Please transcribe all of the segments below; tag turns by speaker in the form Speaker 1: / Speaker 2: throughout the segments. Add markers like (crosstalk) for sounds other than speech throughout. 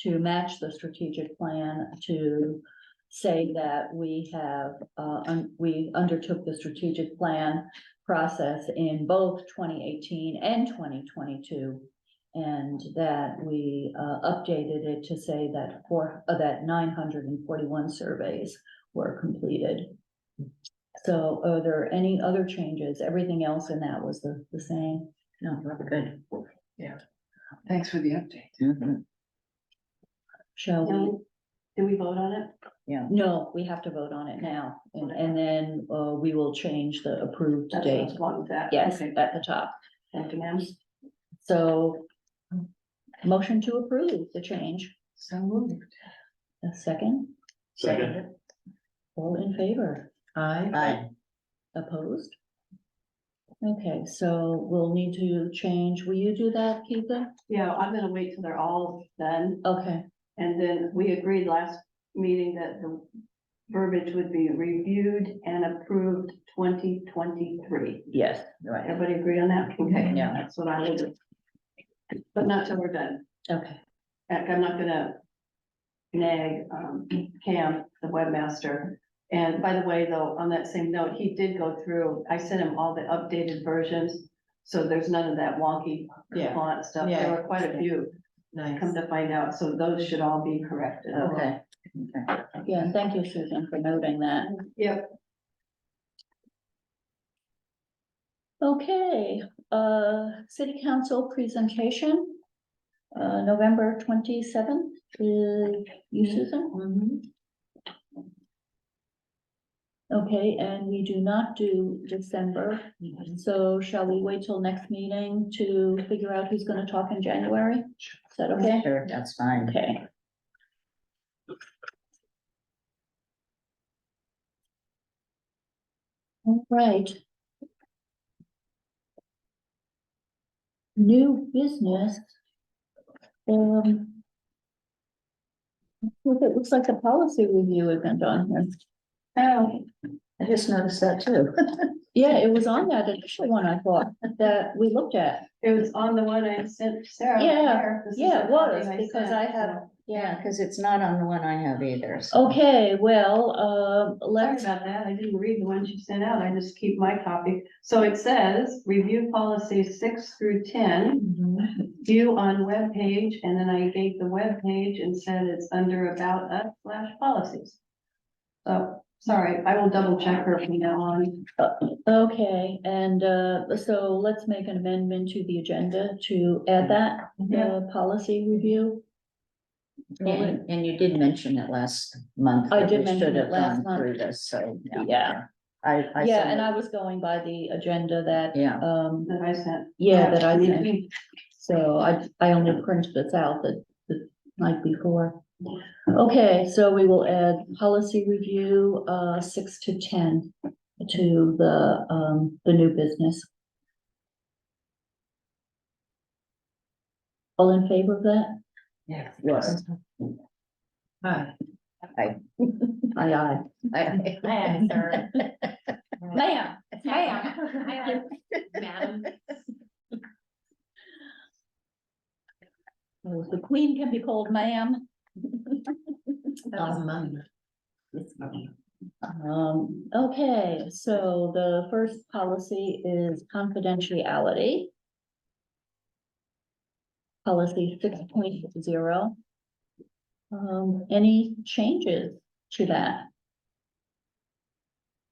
Speaker 1: to match the strategic plan to say that we have, uh, un- we undertook the strategic plan process in both twenty eighteen and twenty twenty-two. And that we, uh, updated it to say that four, uh, that nine hundred and forty-one surveys were completed. So are there any other changes? Everything else in that was the, the same? No, good.
Speaker 2: Thanks for the update.
Speaker 1: Shall we?
Speaker 3: Did we vote on it?
Speaker 1: No, we have to vote on it now, and, and then, uh, we will change the approved
Speaker 3: That's
Speaker 1: date,
Speaker 3: what's wrong with that.
Speaker 1: yes,
Speaker 3: Okay,
Speaker 1: at the top,
Speaker 3: Thank you, ma'am.
Speaker 1: so. Motion to approve the change,
Speaker 2: So moved.
Speaker 1: a second,
Speaker 4: Second.
Speaker 1: all in favor,
Speaker 2: Aye.
Speaker 1: opposed? Okay, so we'll need to change, will you do that, Keitha?
Speaker 3: Yeah, I'm gonna wait till they're all done,
Speaker 1: Okay,
Speaker 3: and then we agreed last meeting that the verbiage would be reviewed and approved twenty twenty-three.
Speaker 1: yes, right,
Speaker 3: Everybody agree on that? Okay,
Speaker 1: Yeah.
Speaker 3: That's what I will do. But not till we're done.
Speaker 1: okay,
Speaker 3: Heck, I'm not gonna nag, um, Cam, the webmaster. And by the way, though, on that same note, he did go through, I sent him all the updated versions, so there's none of that wonky
Speaker 2: Yeah.
Speaker 3: font stuff. There
Speaker 2: Yeah.
Speaker 3: were quite a few,
Speaker 2: Nice.
Speaker 3: come to find out, so those should all be corrected.
Speaker 2: Okay. Okay.
Speaker 1: yeah, and thank you, Susan, for noting that.
Speaker 3: Yep.
Speaker 1: Okay, uh, city council presentation. Uh, November twenty-seventh, you Susan? Okay, and we do not do December, so shall we wait till next meeting to figure out who's gonna talk in January? Is that okay?
Speaker 2: Sure, that's fine.
Speaker 1: Okay. All right. New business. Um. look, It looks like the policy review isn't on here.
Speaker 2: Oh, I just noticed that too. (laughs)
Speaker 1: Yeah, it was on that initial one I thought that we looked at.
Speaker 3: It was on the one I sent Sarah.
Speaker 1: Yeah,
Speaker 3: here. This is
Speaker 1: yeah,
Speaker 3: the
Speaker 1: it was,
Speaker 3: copy
Speaker 1: because I
Speaker 3: sent,
Speaker 1: have-
Speaker 3: so-
Speaker 1: Yeah.
Speaker 2: Cause it's not on the one I have either. so-
Speaker 1: Okay, well, uh,
Speaker 3: Sorry
Speaker 1: let's.
Speaker 3: about that, I didn't read the one she sent out, I just keep my copy. So it says, review policies six through ten,
Speaker 2: Mhm.
Speaker 3: view on web page, and then I gave the web page and said it's under about us slash policies. So, sorry, I will double check her from now on.
Speaker 1: Okay, and uh, so let's make an amendment to the agenda to add that,
Speaker 3: Yeah.
Speaker 1: the policy review.
Speaker 2: And and you did mention it last month.
Speaker 1: I
Speaker 2: that
Speaker 1: did
Speaker 2: we should
Speaker 1: mention it
Speaker 2: have
Speaker 1: last
Speaker 2: gone
Speaker 1: month.
Speaker 2: through this, So.
Speaker 1: Yeah.
Speaker 2: I, I.
Speaker 1: Yeah,
Speaker 2: said
Speaker 1: and
Speaker 2: that-
Speaker 1: I was going by the agenda that,
Speaker 2: Yeah,
Speaker 1: um,
Speaker 3: That I sent.
Speaker 1: yeah, that I sent. So I, I only printed this out the, the night before. Okay, so we will add policy review, uh, six to ten to the, um, the new business. All in favor of that?
Speaker 2: yeah, yes. (laughs)
Speaker 1: Aye, aye.
Speaker 2: I-
Speaker 5: Ma'am, sir.
Speaker 1: Ma'am,
Speaker 5: Ma'am, I like madam.
Speaker 1: Oh, the queen can be called
Speaker 5: (laughs)
Speaker 1: ma'am. Um, okay, so the first policy is confidentiality. Policy six point zero. Um, any changes to that?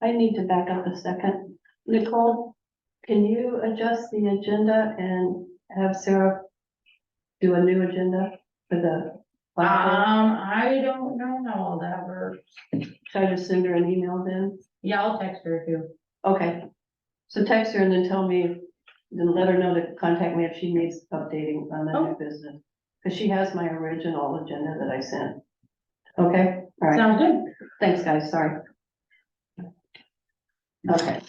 Speaker 3: I need to back up a second. Nicole, can you adjust the agenda and have Sarah do a new agenda for the?
Speaker 5: Um,
Speaker 2: Uh,
Speaker 5: I don't know how all that works.
Speaker 3: Should I just send her an email then?
Speaker 5: Yeah, I'll text her if you.
Speaker 3: Okay. So text her and then tell me, then let her know to contact me if she needs updating on the
Speaker 5: Oh.
Speaker 3: new business. Cause she has my original agenda that I sent. Okay, all right.
Speaker 5: Sounds good.
Speaker 3: Thanks, guys. Sorry. Okay.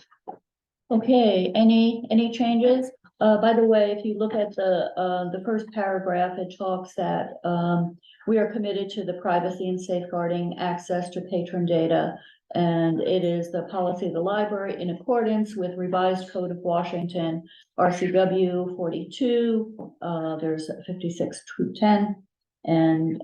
Speaker 1: Okay, any, any changes? Uh, by the way, if you look at the, uh, the first paragraph, it talks that, um, we are committed to the privacy and safeguarding access to patron data. And it is the policy of the library in accordance with revised code of Washington, RCW forty-two, uh, there's fifty-six to ten. And,